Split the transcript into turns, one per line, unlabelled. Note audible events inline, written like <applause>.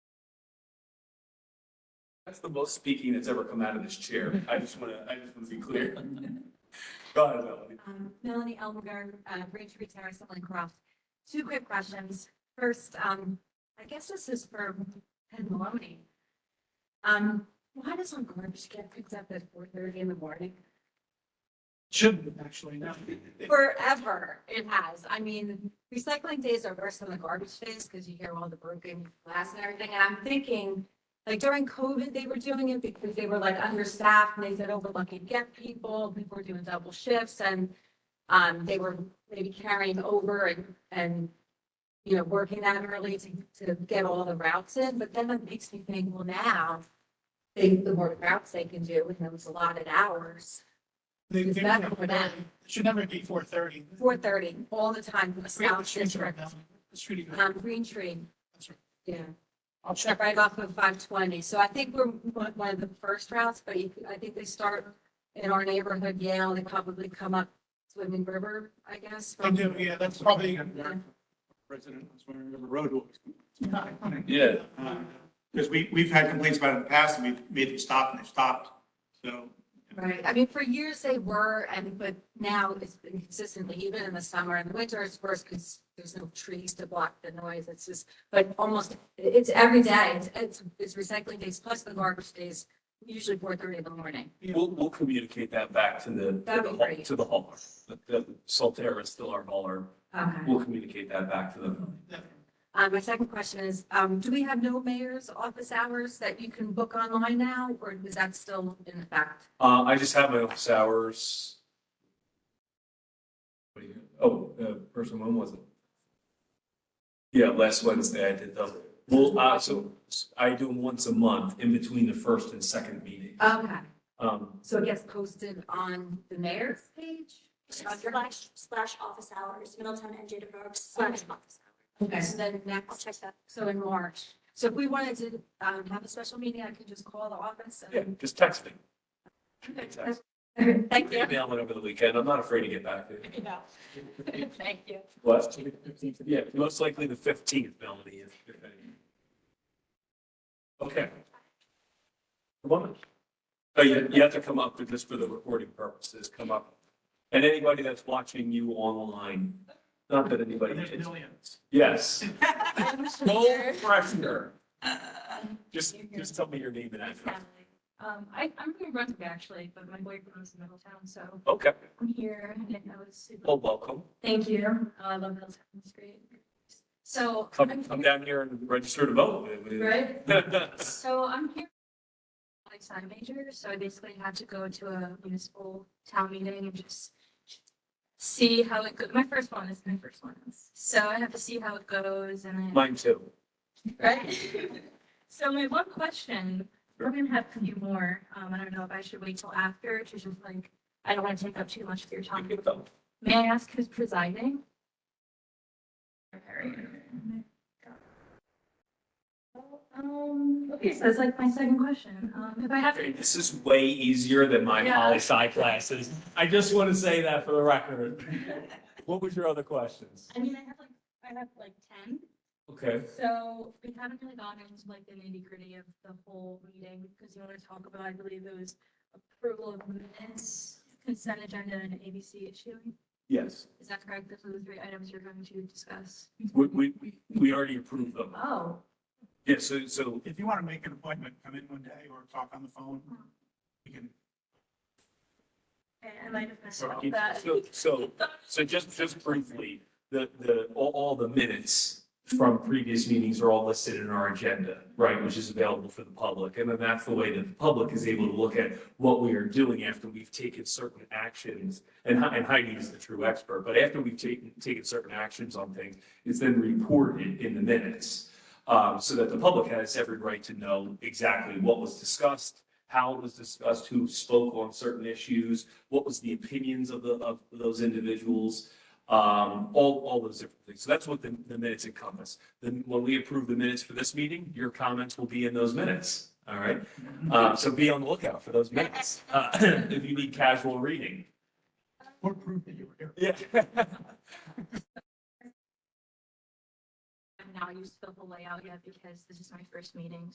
That's the most speaking that's ever come out of this
<laughs>
chair. I just want to, I just want to be clear. <laughs> Go ahead, Melanie.
Um, Melanie Elmberg, uh, Range Reed Terrace, Sutherland Croft. Two quick questions. First, um, I guess this is for Ted Maloney. Um, why does our garbage get picked up at four thirty in the morning?
Shouldn't have actually, no.
Forever it has. I mean, recycling days are worse than the garbage days because you hear all the broken glass and everything. And I'm thinking, like during COVID, they were doing it because they were like understaffed and they said, oh, we're lucky to get people. People were doing double shifts and um, they were maybe carrying over and, and, you know, working that early to, to get all the routes in, but then it makes me think, well, now, they, the more routes they can do, and those allotted hours,
They-
is
they-
better for them.
It Should never be four thirty.
Four thirty, all the time, for the
Forget the
South
streets right
District,
now. The street.
um, Green Tree,
That's right.
yeah,
I'll check.
right off of five twenty, so I think we're one one of the first routes, but you- I think they start in our neighborhood, Yale, they probably come up Swimming River, I guess.
I
from-
do, yeah, that's probably.
Yeah.
President, that's where the road was.
Yeah.
Because we, we've had complaints about it in the past, and we've made them stop, and they've stopped, so.
Right, I mean, for years they were, and but now it's been consistently, even in the summer and the winter, it's worse because there's no trees to block the noise, it's just, but almost, it's every day, it's, it's, it's recycling days plus the garbage days, usually four thirty in the morning.
We'll, we'll communicate that back to the, to
That'd
the
be
hall-
great.
to the hauler. The- The Solterra is still our hauler.
Okay.
We'll communicate that back to them.
Uh, my second question is, um, do we have no mayor's office hours that you can book online now, or is that still in effect?
Uh, I just have my office hours. What do you- Oh, uh, person one was it? Yeah, last Wednesday I did those. Well, uh, so I do them once a month in between the first and second meeting.
Okay,
Um,
so it gets posted on the mayor's page?
Slash, slash office hours, Middletown and Jada Brooks, slash office hours.
Okay, so then
I'll
next
check that.
So in March. So if we wanted to um, have a special meeting, I could just call the office
yeah,
and.
just text me. Text
<laughs> Thank
me,
you.
Email it over the weekend. I'm not afraid to get back to you.
Thank you.
What? Yeah, most likely the fifteenth, Melanie, if, if any. Okay. Come on. Oh, you, you have to come up for just for the recording purposes, come up. And anybody that's watching you online, not that anybody
There's
is.
millions.
Yes. No pressure. Just, just tell me your name and address.
Um, I, I'm from Brunswick actually, but my boyfriend was in Middletown, so
Okay,
I'm here and I was super.
well, welcome.
Thank
Um,
you. I love Middletown, it's great. So,
Come,
I'm
come down here and register to vote.
right?
That's
So I'm here. I'm a sign major, so I basically had to go to a municipal town meeting and just see how it goes. My first one is my first one. So I have to see how it goes and
<laughs>
then.
Mine too.
Right? <laughs> So my one question, we're gonna have a few more, um, I don't know if I should wait till after, to just like, I don't wanna take up too much of your
You
time.
can vote.
May I ask who's presiding? Um, okay, so that's like my second question, um, if I have to.
This is way easier than my
Yeah.
poli sci classes. I just want to say that for the record. What was your other questions?
I mean, I have like, I have like ten.
Okay,
So we haven't really gotten into like the nitty gritty of the whole meeting because you want to talk about, I believe it was approval of minutes, consent agenda and ABC issue.
yes,
Is that correct? Those are the three items you're going to discuss.
we, we, we already approved them.
Oh.
Yeah, so, so,
If you want to make an appointment, come in one day or talk on the phone.
Hmm.
We can,
I might have messed up that.
so, so, so just, just briefly, the, the, all, all the minutes from previous meetings are all listed in our agenda, right, which is available for the public. And then that's the way that the public is able to look at what we are doing after we've taken certain actions. And Hei- and Heidi is the true expert, but after we've taken, taken certain actions on things, it's then reported in the minutes. um, so that the public has every right to know exactly what was discussed, how it was discussed, who spoke on certain issues, what was the opinions of the, of those individuals, um, all, all those different things. So that's what the, the minutes encompass. Then when we approve the minutes for this meeting, your comments will be in those minutes, all right? Uh, so be on the lookout for those minutes, uh, <coughs> if you need casual reading.
Or prove that you were here.
Yeah.
I'm not used to the whole layout yet because this is my first meeting,